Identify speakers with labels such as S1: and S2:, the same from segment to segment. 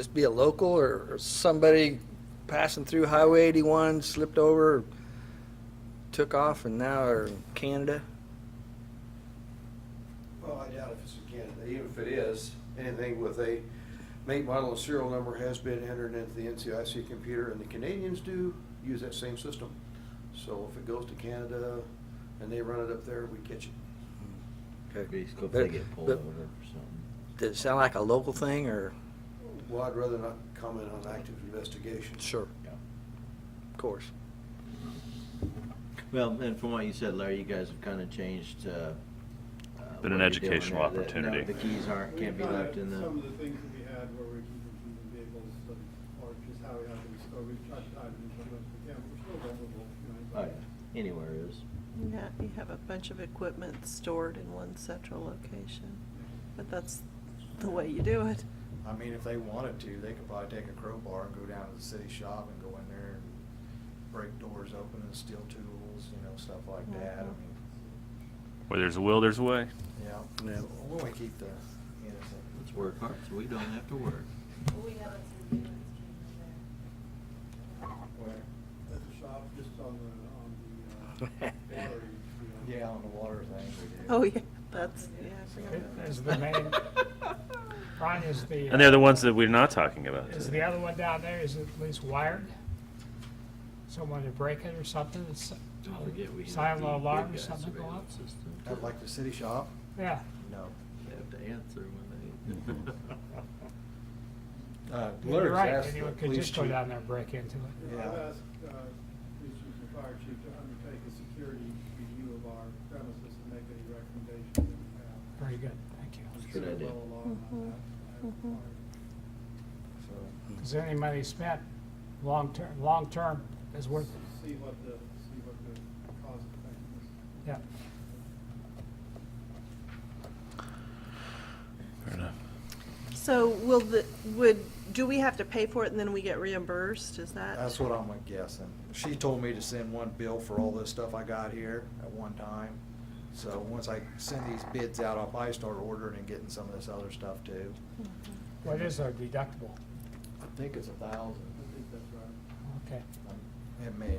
S1: Just be a local or or somebody passing through Highway 81 slipped over, took off and now are in Canada?
S2: Well, I doubt if it's in Canada. Even if it is, anything with a make, model, and serial number has been entered into the NCIC computer, and the Canadians do use that same system. So if it goes to Canada and they run it up there, we catch it.
S1: Okay.
S3: Basically, if
S1: But-
S3: they get pulled
S1: but-
S3: over or something.
S1: Does it sound like a local thing or?
S2: Well, I'd rather not comment on active investigation.
S3: Yeah.
S1: Of course.
S3: Well, and from what you said, Larry, you guys have kind of changed. uh, uh,
S4: Been
S3: what
S4: an
S3: you're doing
S4: educational
S3: there, that- no,
S4: opportunity.
S3: The keys aren't, can't be
S5: We've got
S3: left in
S5: Some of
S3: the,
S5: the things that we had where we're keeping people in vehicles, like, or just how we have them, or we've tried to dive into them, but yeah, we're still vulnerable, you know.
S3: oh, yeah, anywhere is.
S6: Yeah, you have a bunch of equipment stored in one central location, but that's the way you do it.
S7: I mean, if they wanted to, they could probably take a crowbar and go down to the city shop and go in there and break doors open and steal tools, you know, stuff like that. I
S6: Mhm.
S7: mean,
S4: Where there's a will, there's a way.
S7: yeah.
S1: Yeah.
S7: We want to keep the innocent.
S3: Let's work hard so we don't have to work.
S8: We have it through the stream there.
S7: Where-
S5: At the shop, just on the, on the, uh, water, you know.
S7: Yeah, on the water thing we do.
S6: Oh, yeah, that's, yeah. I forgot.
S9: Is the main- Ron, is the. uh,
S4: And they're the ones that we're not talking about.
S9: Is
S4: today.
S9: the other one down there, is it at least wired? Someone to break it or something? It's-
S3: Don't forget, we have
S9: Silent
S3: the big
S9: alarm or
S3: guy
S9: something go off?
S3: surveillance system,
S7: Not
S3: too.
S7: like the city shop?
S9: Yeah.
S7: No.
S3: They have to answer when they.
S7: Uh,
S9: You're
S7: Larry's
S9: right,
S7: asked
S9: anyone
S7: the
S9: could
S7: police
S9: just go
S7: chief-
S9: down there and break into it.
S5: You know, I've
S7: Yeah.
S5: asked, uh, police chief and fire chief to undertake a security review of our premises and make any recommendations that we have.
S9: Very good, Mm-hmm. thank you.
S3: Good idea.
S5: Well along on that, I
S6: Mhm, mhm.
S5: require.
S7: So,
S9: Because any money spent, long-term, long-term is worth it,
S5: See what the, see what the cost effectiveness.
S9: yeah.
S4: Fair enough.
S6: So will the, would, do we have to pay for it and then we get reimbursed, is that?
S7: That's what I'm guessing. She told me to send one bill for all this stuff I got here at one time. So once I send these bids out, I'll probably start ordering and getting some of this other stuff too.
S9: What is our deductible?
S7: I think it's a thousand.
S5: I think that's right.
S9: Okay.
S7: It may.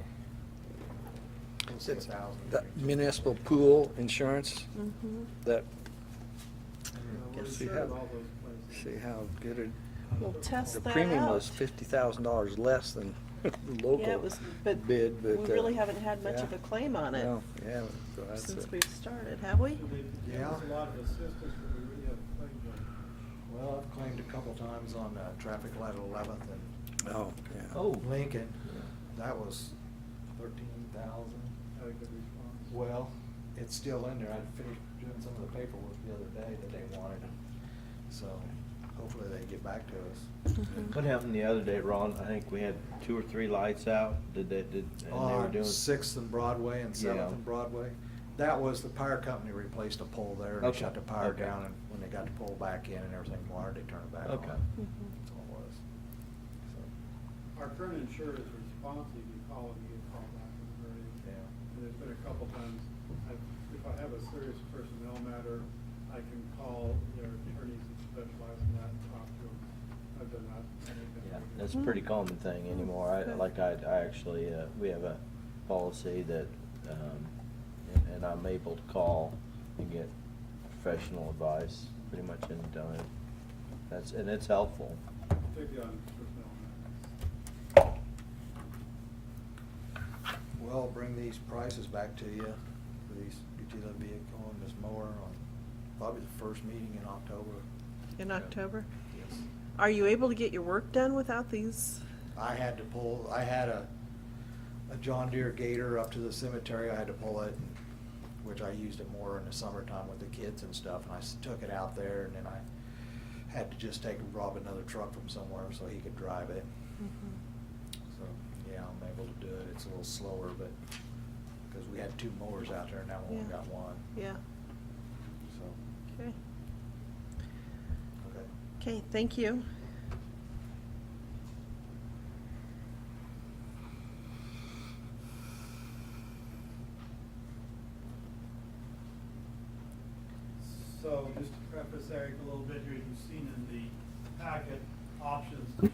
S7: It's a
S1: It's-
S7: thousand.
S1: That Municipal pool insurance,
S6: Mhm.
S1: that,
S3: Hmm.
S5: Uh, We're
S1: Guess we
S5: insured
S1: have-
S5: in all those places.
S1: see how good it,
S6: We'll test
S1: the
S6: that out.
S1: premium was $50,000 less than the local bid, but.
S6: Yeah, it was, but we
S1: uh,
S6: really haven't had much
S1: yeah.
S6: of a claim on it
S1: No, yeah. so that's
S6: since
S1: it.
S6: we've started, have we?
S5: And they've given us a
S7: Yeah.
S5: lot of assistance, but we really haven't claimed them.
S7: Well, I've claimed a couple times on uh, traffic light at Eleventh
S1: Oh, yeah.
S7: and Lincoln. That was thirteen thousand.
S5: Had a good response.
S7: Well, it's still in there. I finished doing some of the paperwork the other day that they wanted. So hopefully they get back to us.
S1: Mm-hmm.
S6: Mhm.
S3: What happened the other day, Ron? I think we had two or three lights out. Did they, did, and
S5: Uh,
S3: they were
S7: On
S3: doing.
S7: Sixth and Broadway and Seventh
S3: Yeah.
S7: and Broadway. That was the power company replaced a pole there. and They
S3: Okay,
S7: shut the power
S3: okay.
S7: down and when they got the pole back in and everything wired, they turned it back on.
S3: Okay.
S6: Mhm.
S7: That's all it was. So,
S5: Our current insurer is responsive, you call and you get called back in a hurry.
S7: Yeah.
S5: And there's been a couple times, I, if I have a serious personnel matter, I can call their attorneys that specialize in that and talk to them. I've done that. I think
S3: Yeah,
S5: good.
S3: that's a pretty common thing anymore. I,
S6: Good.
S3: like I, I actually, uh, we have a policy that, um, and- and I'm able to call and get professional advice pretty much any time. That's, and it's helpful.
S5: Particularly on personnel matters.
S7: Well, I'll bring these prices back to you for these utility vehicle and this mower on probably the first meeting in October.
S6: In October?
S7: Yes.
S6: Are you able to get your work done without these?
S7: I had to pull, I had a, a John Deere Gator up to the cemetery, I had to pull it, which I used it more in the summertime with the kids and stuff, and I s- took it out there, and then I had to just take, rob another truck from somewhere so he could drive it. So, yeah, I'm able to do it, it's a little slower, but, because we had two mowers out there, and now we only
S6: Yeah.
S7: got one,
S6: Yeah,
S7: so,
S6: okay.
S7: okay.
S6: Okay, thank you.
S5: So just to preface Eric a little bit here, you've seen in the packet